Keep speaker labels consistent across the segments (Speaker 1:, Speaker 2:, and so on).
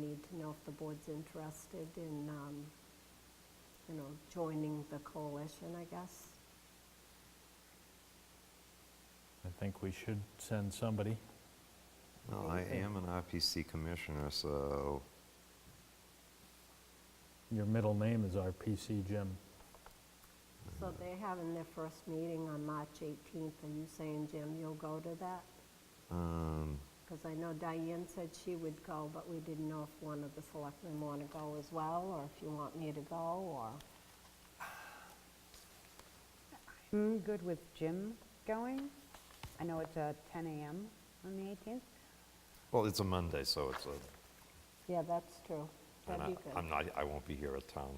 Speaker 1: to know if the board's interested in, um, you know, joining the coalition, I guess.
Speaker 2: I think we should send somebody.
Speaker 3: No, I am an RPC commissioner, so
Speaker 2: Your middle name is RPC, Jim.
Speaker 1: So
Speaker 3: Mm-hmm.
Speaker 1: they're having their first meeting on March 18th. Are you saying, Jim, you'll go to that?
Speaker 3: um,
Speaker 1: Because I know Diane said she would go, but we didn't know if one of the selectmen want to go as well, or if you want me to go, or,
Speaker 4: I'm good with Jim going. I know it's uh, 10 AM on the 18th.
Speaker 3: well, it's a Monday, so it's a,
Speaker 1: yeah, that's true.
Speaker 3: and
Speaker 1: That'd
Speaker 3: I-
Speaker 1: be good.
Speaker 3: I'm not, I won't be here at town.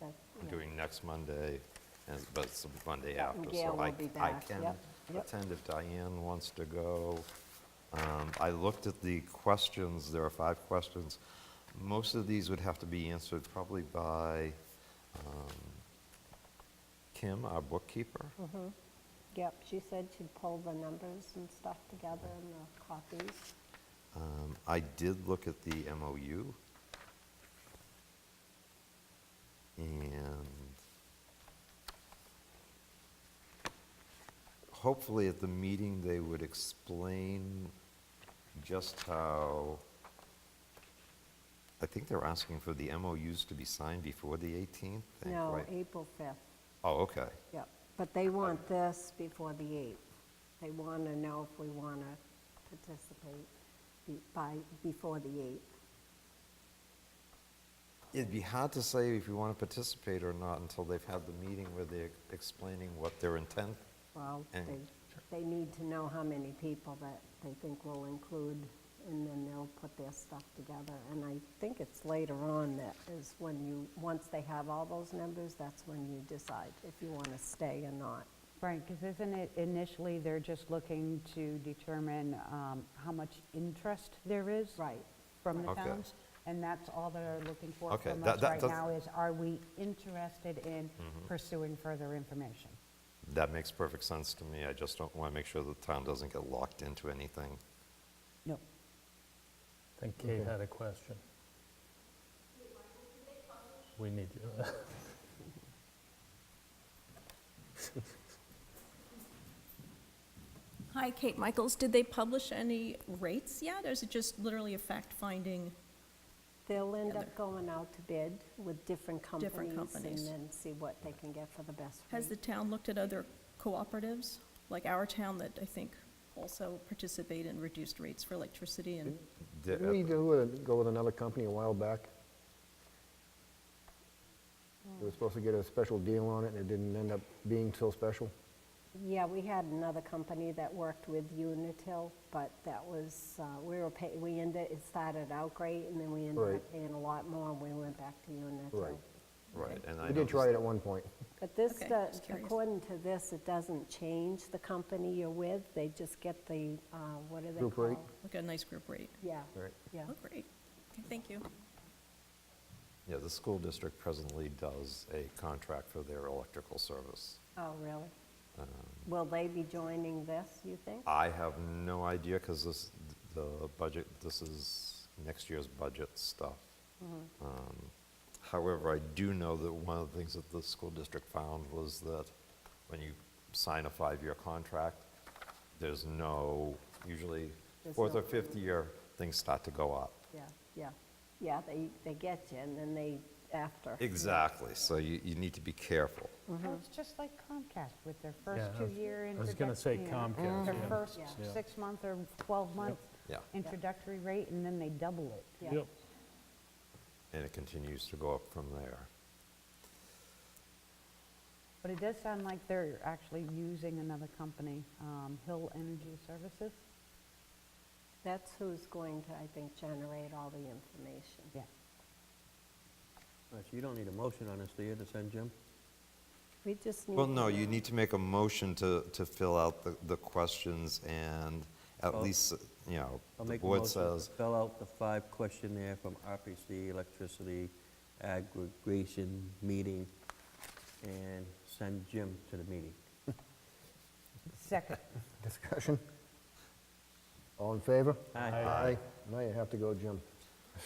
Speaker 1: That-
Speaker 3: I'm
Speaker 1: yeah.
Speaker 3: doing next Monday, and, but it's the Monday
Speaker 1: Yeah,
Speaker 3: after,
Speaker 1: Gail
Speaker 3: so I,
Speaker 1: will be
Speaker 3: I
Speaker 1: back,
Speaker 3: can
Speaker 1: yep, yep.
Speaker 3: attend if Diane wants to go. Um, I looked at the questions, there are five questions. Most of these would have to be answered probably by, um, Kim, our bookkeeper.
Speaker 1: Yep, she said she'd pull the numbers and stuff together and the copies.
Speaker 3: Um, I did look at the MOU. And hopefully at the meeting, they would explain just how, I think they're asking for the MOUs to be signed before the 18th, I think,
Speaker 1: No,
Speaker 3: right?
Speaker 1: April 5th,
Speaker 3: Oh, okay.
Speaker 1: yep. But they want this before the 8th. They want to know if we want to participate be- by, before the 8th.
Speaker 3: It'd be hard to say if you want to participate or not until they've had the meeting where they're explaining what their intent
Speaker 1: Well,
Speaker 3: And-
Speaker 1: they, they need to know how many people that they think will include, and then they'll put their stuff together. And I think it's later on that is when you, once they have all those numbers, that's when you decide if you want to stay or not.
Speaker 4: Right, because isn't it initially they're just looking to determine um, how much interest there is?
Speaker 1: Right.
Speaker 4: From the
Speaker 3: Okay.
Speaker 4: towns? And that's all they're looking for
Speaker 3: Okay,
Speaker 4: from
Speaker 3: that-
Speaker 4: us
Speaker 3: that- Mm-hmm.
Speaker 4: right
Speaker 3: that's-
Speaker 4: now is, are we interested in pursuing further information?
Speaker 3: That makes perfect sense to me. I just don't want to make sure the town doesn't get locked into anything.
Speaker 4: No.
Speaker 2: I think Kate had a question. We need you.
Speaker 5: Hi, Kate Michaels. Did they publish any rates yet, or is it just literally a fact-finding?
Speaker 1: They'll end
Speaker 5: Together.
Speaker 1: up going out to bid with different companies.
Speaker 5: companies.
Speaker 1: And then see what they can get for the best
Speaker 5: Has the
Speaker 1: rate.
Speaker 5: town looked at other cooperatives, like our town that I think also participate in reduced rates for electricity and,
Speaker 3: The-
Speaker 6: Didn't we do it, go with another company a while back? They were supposed to get a special deal on it, and it didn't end up being so special.
Speaker 1: Yeah, we had another company that worked with Unitil, but that was, uh, we were pay, we ended, it started out great, and then we ended up
Speaker 6: Right.
Speaker 1: paying a lot more, and we went back to Unitil.
Speaker 6: Right.
Speaker 3: Right, and I
Speaker 6: We did
Speaker 3: noticed-
Speaker 6: try it at one point.
Speaker 1: But this,
Speaker 5: Okay,
Speaker 1: does-
Speaker 5: just curious.
Speaker 1: according to this, it doesn't change the company you're with, they just get the, uh, what are they
Speaker 6: Group rate.
Speaker 1: called?
Speaker 5: like a nice group rate?
Speaker 1: Yeah,
Speaker 6: Right.
Speaker 1: yeah.
Speaker 5: Oh, great. Okay, thank you.
Speaker 3: Yeah, the school district presently does a contract for their electrical service.
Speaker 1: Oh, really?
Speaker 6: Um.
Speaker 1: Will they be joining this, you think?
Speaker 6: Uh.
Speaker 3: I have no idea, because this, the budget, this is next year's budget stuff.
Speaker 1: Mm-hmm.
Speaker 3: Um, However, I do know that one of the things that the school district found was that when you sign a five-year contract, there's no, usually,
Speaker 1: There's
Speaker 3: fourth
Speaker 1: no
Speaker 3: or fifth year, things start to go up.
Speaker 1: Yeah, yeah, yeah, they, they get you, and then they, after.
Speaker 3: Exactly, so you, you need to be careful.
Speaker 4: Well, Oh, It's just like Comcast with their first
Speaker 2: Yeah, I was-
Speaker 4: two-year
Speaker 2: I was gonna say
Speaker 4: introductory.
Speaker 2: Comcast,
Speaker 4: Their
Speaker 2: yeah.
Speaker 4: first
Speaker 1: Yeah.
Speaker 4: six-month or 12-month
Speaker 3: Yeah.
Speaker 4: introductory rate, and then they double it.
Speaker 1: Yeah.
Speaker 2: Yep.
Speaker 3: And it continues to go up from there.
Speaker 4: But it does sound like they're actually using another company, um, Hill Energy Services.
Speaker 1: That's who's going to, I think, generate all the information.
Speaker 4: Yeah.
Speaker 7: All right, so you don't need a motion on this, do you, to send Jim?
Speaker 1: We just need.
Speaker 3: Well, no,
Speaker 1: to
Speaker 3: you
Speaker 1: know.
Speaker 3: need to make a motion to, to fill out the, the questions and at
Speaker 7: Well,
Speaker 3: least, you know,
Speaker 7: I'll
Speaker 3: the
Speaker 7: make a
Speaker 3: board
Speaker 7: motion to
Speaker 3: says,
Speaker 7: fill out the five questionnaire from RPC Electricity Aggregation Meeting and send Jim to the meeting.
Speaker 4: Second.
Speaker 6: Discussion? All in favor?
Speaker 7: Aye.
Speaker 6: Aye. Now you have to go, Jim.